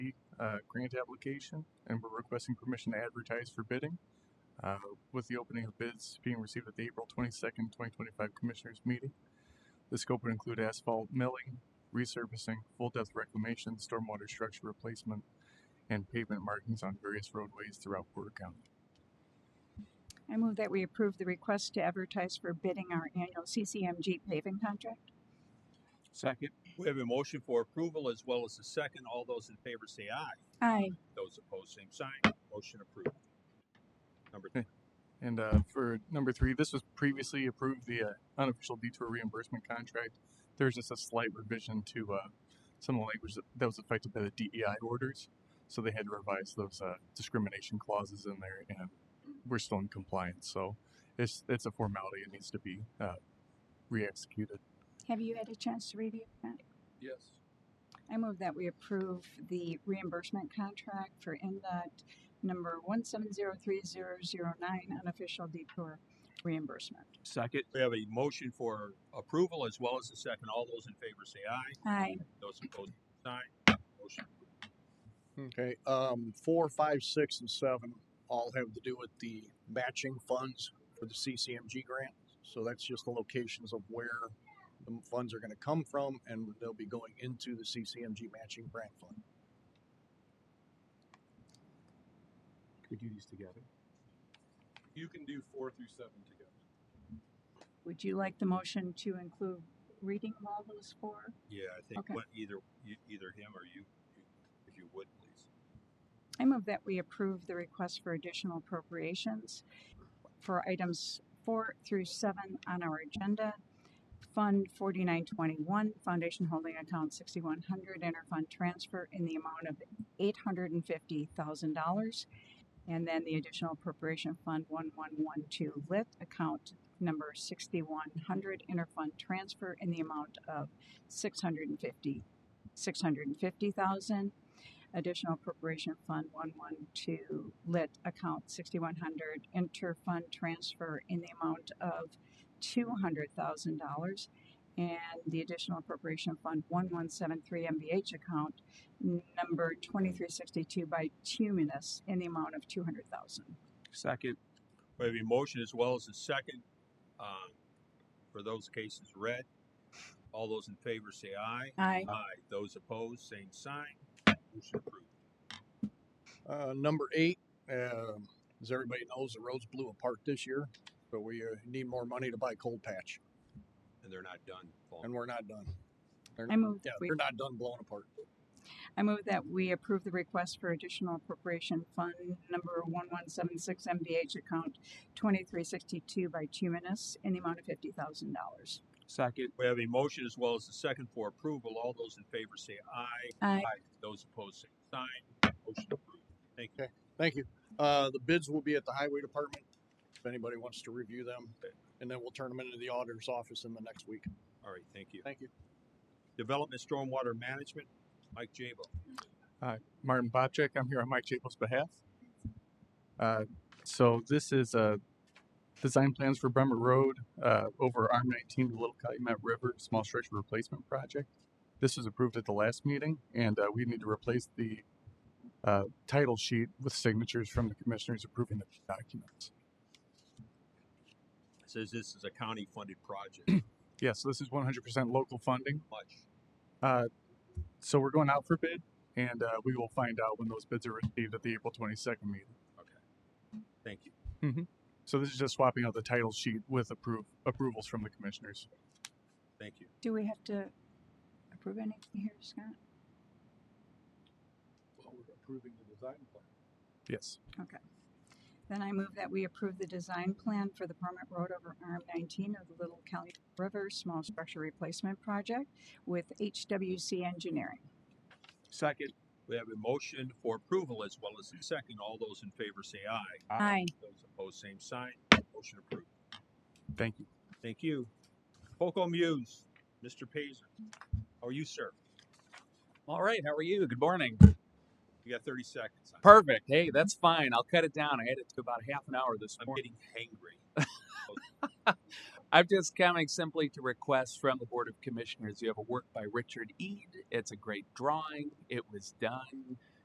uh, grant application, and we're requesting permission to advertise for bidding. Uh, with the opening of bids being received at the April twenty-second, twenty twenty-five Commissioners Meeting. The scope would include asphalt milling, resurfacing, full-depth reclamation, stormwater structure replacement, and pavement markings on various roadways throughout Porter County. I move that we approve the request to advertise for bidding our annual CCMG paving contract. Second. We have a motion for approval as well as a second. All those in favor say aye. Aye. Those opposed, same sign. Motion approved. Number Okay. And uh, for number three, this was previously approved the uh, unofficial detour reimbursement contract. There's just a slight revision to uh, some of the language that, that was affected by the DEI orders. So they had to revise those uh, discrimination clauses in there, and we're still in compliance. So it's it's a formality; it needs to be uh, re-executed. Have you had a chance to review that? Yes. I move that we approve the reimbursement contract for NDOT number one seven zero three zero zero nine unofficial detour reimbursement. Second. We have a motion for approval as well as a second. All those in favor say aye. Aye. Those opposed, same sign. Motion approved. Okay, um, four, five, six, and seven all have to do with the matching funds for the CCMG grant. So that's just the locations of where the funds are gonna come from and they'll be going into the CCMG matching grant fund. Could we do these together? You can do four through seven together. Would you like the motion to include reading of all those four? Yeah, I think Okay. what either, e- either him or you, you- if you would, please. I move that we approve the request for additional appropriations for items four through seven on our agenda. Fund forty-nine twenty-one, Foundation Holding Account sixty-one hundred, interfund transfer in the amount of eight hundred and fifty thousand dollars. And then the additional appropriation fund one one one two lit account number sixty-one hundred, interfund transfer in the amount of six hundred and fifty, six hundred and fifty thousand additional appropriation fund one one two lit account sixty one hundred interfund transfer in the amount of two hundred thousand dollars and the additional appropriation fund one one seven three MBH account number twenty three sixty two by Tuminous in the amount of two hundred thousand. Second. We have a motion as well as a second, um, for those cases read. All those in favor say aye. Aye. Aye. Those opposed, same sign. Motion approved. Uh, number eight, um, as everybody knows, the roads blew apart this year, but we uh, need more money to buy cold patch And they're not done. Paul. and we're not done. They're- I move Yeah, we- they're not done blowing apart. I move that we approve the request for additional appropriation fund number one one seven six MBH account twenty three sixty two by Tuminous in the amount of fifty thousand dollars. Second. We have a motion as well as a second for approval. All those in favor say aye. Aye. Those opposed, same sign. Motion approved. Thank you. Thank you. Uh, the bids will be at the highway department, if anybody wants to review them. And then we'll turn them into the auditor's office in the next week. All right, thank you. Thank you. Development Stormwater Management, Mike Jabo. Martin Bobcheck. I'm here on Mike Chapel's behalf. Uh, so this is uh, design plans for Bremer Road uh, over Arm 19 to Little Calumet River small structure replacement project. This was approved at the last meeting, and uh, we need to replace the uh, title sheet with signatures from the commissioners approving the documents. Says this is a county-funded project. Yeah, so this is 100% local funding. Uh, Much. So we're going out for bid, and uh, we will find out when those bids are received at the April 22nd meeting. Thank you. So this is just swapping out the title sheet with approve approvals from the commissioners. Thank you. Do we have to approve anything here, Scott? Well, we're approving the design plan. Yes. Then I move that we approve the design plan for the permit road over Arm 19 of the Little Cali River Small Structure Replacement Project with HWC Engineering. Second. We have a motion for approval as well as a second. All those in favor say aye. Aye. Those opposed, same sign. Motion approved. Thank you. Thank you. Poco Muse, Mr. Pazer. How are you, sir? All right, how are you? Good morning. You got thirty seconds. I'm- Perfect. Hey, that's fine. I'll cut it down. I had it to about half an hour this I'm morning. getting hangry. I'm just coming simply to request from the Board of Commissioners. You have a work by Richard Ead. It's a great drawing. It was done